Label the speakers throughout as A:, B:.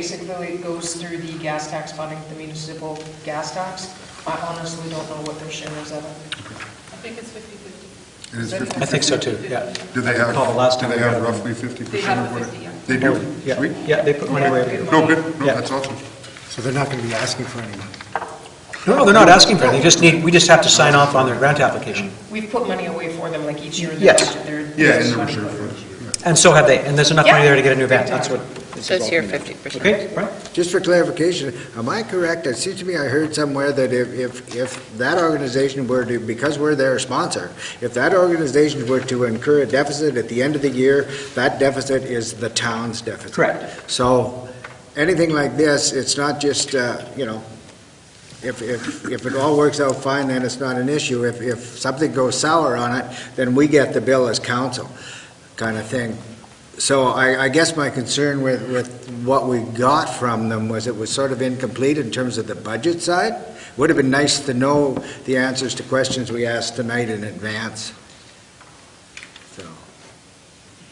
A: Basically, it goes through the gas tax funding, the municipal gas tax. I honestly don't know what their share is of it.
B: I think it's 50/50.
C: It is 50.
D: I think so too, yeah.
C: Do they
D: Call the last
C: have, do
D: time
C: they
D: we
C: have
D: had them.
C: roughly 50%
B: They have
C: of what? it-
B: 50, yeah.
C: They do?
D: Yeah,
C: Sweet.
D: Yeah, they put money away.
C: No, good, no,
D: Yeah.
C: that's awesome.
E: So they're not going to be asking for any money.
D: No, they're not asking for it, they just need, we just have to sign off on their grant application.
A: We put money away for them like each year in the
D: Yes.
A: budget. They're-
C: Yeah, in
A: there's
C: the
A: money.
C: reserve funds.
D: And so have they, and there's enough money there to get a new van, that's what.
F: So it's your
D: involved in that.
F: 50%.
D: Okay, right?
E: Just for clarification, am I correct? It seems to me I heard somewhere that if, if, if that organization were to, because we're their sponsor, if that organization were to incur a deficit at the end of the year, that deficit is the town's deficit.
D: Correct.
E: So anything like this, it's not just, uh, you know, if, if, if it all works out fine, then it's not an issue. If, if something goes sour on it, then we get the bill as council, kind of thing. So I, I guess my concern with, with what we got from them was it was sort of incomplete in terms of the budget side. Would have been nice to know the answers to questions we asked tonight in advance. So-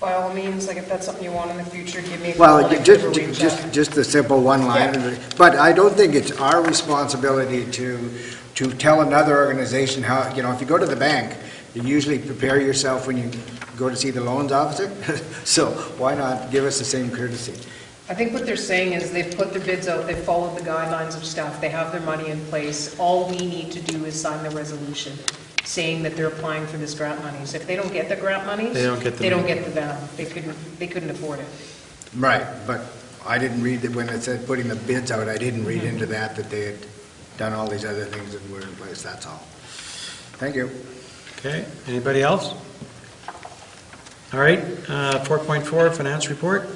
A: By all means, like if that's something you want in the future, give me a call.
E: Well,
A: and I can
E: just,
A: reach out.
E: just, just the simple one line, but I don't think it's our responsibility to, to tell another organization how, you know, if you go to the bank, you usually prepare yourself when you go to see the loans officer, so why not give us the same courtesy?
A: I think what they're saying is they've put their bids out, they've followed the guidelines of staff, they have their money in place. All we need to do is sign the resolution saying that they're applying for this grant monies. If they don't get the grant monies,
D: They don't get the
A: They don't
D: money.
A: get the van. They couldn't, they couldn't afford it.
E: Right, but I didn't read that when it said putting the bids out, I didn't read into that that they had done all these other things and were in place, that's all. Thank you.
D: Okay, anybody else? All right, uh, 4.4, finance report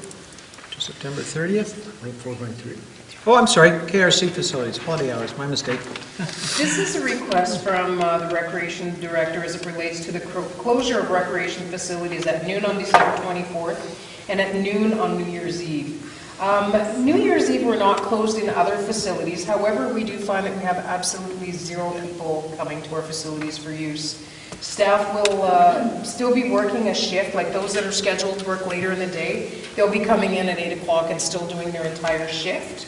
D: to September 30th.
E: Four point three.
D: Oh, I'm sorry, KRC facilities, holiday hours, my mistake.
A: This is a request from uh, the Recreation Director as it relates to the cro- closure of recreation facilities at noon on December 24th and at noon on New Year's Eve. Um, New Year's Eve, we're not closed in other facilities, however, we do find that we have absolutely zero people coming to our facilities for use. Staff will uh, still be working a shift, like those that are scheduled to work later in the day, they'll be coming in at 8 o'clock and still doing their entire shift,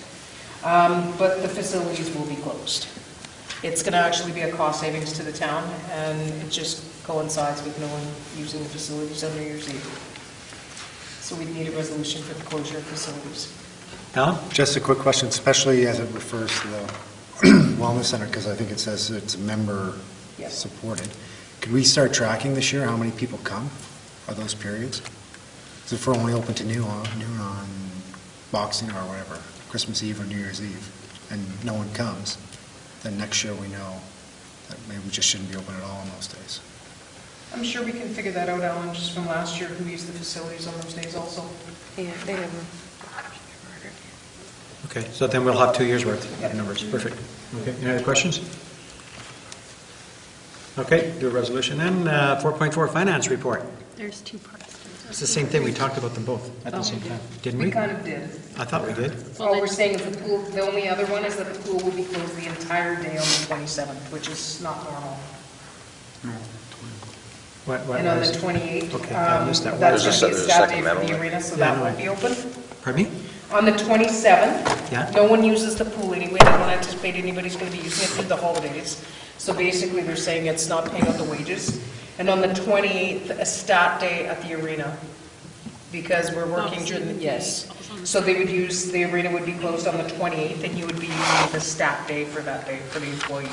A: Um, but the facilities will be closed. It's going to actually be a cost savings to the town, and it just coincides with no one using the facilities on New Year's Eve. So we'd need a resolution for the closure of facilities.
D: Alan?
G: Just a quick question, especially as it refers to the Wellness Center, because I think it says it's
A: Yes.
G: member-supported. Could we start tracking this year, how many people come? Are those periods? So if we're only open to noon on, noon on Boxing or whatever, Christmas Eve or New Year's Eve, and no one comes, then next year we know that maybe we just shouldn't be open at all on those days.
A: I'm sure we can figure that out, Alan, just from last year, who used the facilities on those days also.
F: Yeah, they never.
D: Okay, so then we'll have two years' worth of numbers, perfect. Okay, any other questions? Okay, do a resolution then, Uh, 4.4, finance report.
B: There's two parts.
D: It's the same thing, we talked about them both at the same time, didn't we?
A: We kind of did.
D: I thought we did.
A: All we're saying is the pool, the only other one is that the pool will be closed the entire day on the 27th, which is not normal.
D: What- what
A: And on the
D: was-
A: 28th,
D: Okay, I
A: um,
D: missed that.
A: that's
D: What is
A: going to be
H: this?
A: a
H: There's a
A: staff day
H: second
A: for
H: medal.
A: the arena, so
D: Yeah,
A: that
D: no.
A: won't be open.
D: Pardon me?
A: On the 27th.
D: Yeah.
A: No one uses the pool anyway, I don't anticipate anybody's going to be using it through the holidays. So basically, they're saying it's not paying out the wages. And on the 28th, a stat day at the arena, because we're working during, the yes. So they would use, the arena would be closed on the 28th, and you would be using the stat day for that day, for the employees.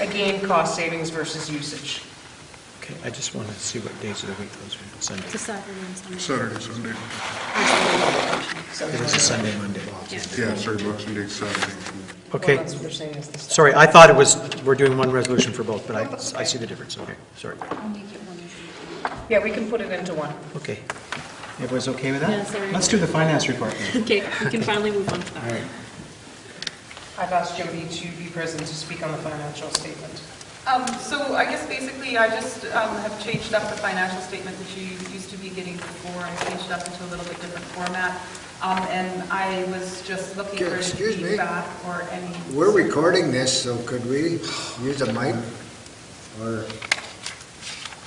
A: Again, cost savings versus usage.
D: Okay, I just want to see what days of the week those are, Sunday.
B: It's a Saturday and Sunday.
C: Saturday, Sunday,
D: It was a Sunday, Monday.
C: yeah, sorry, Boxing Day, Saturday.
D: Okay.
A: Well, that's what they're saying is the stat.
D: Sorry, I thought it was, we're doing one resolution for both, but I, I see the difference, okay, sorry.
B: I'll make it one.
A: Yeah, we can put it into one.
D: Okay. Everyone's okay with
B: Yeah,
D: that?
B: sorry.
D: Let's do the finance report then.
B: Okay, we can finally move on to
D: All
B: that.
D: right.
A: I've asked Jody to be present to speak on the financial statement.
I: Um, So I guess basically, I just um, have changed up the financial statement that you used to be getting before and changed it up into a little bit different format. Um, And I was just looking for any
E: Excuse me.
I: feedback or any...
E: We're recording this, so could we use a mic? Or,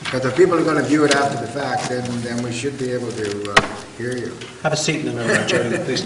E: because if people are going to view it after the fact, then, then we should be able to uh, hear you.
D: Have a seat in the middle, Jody, please.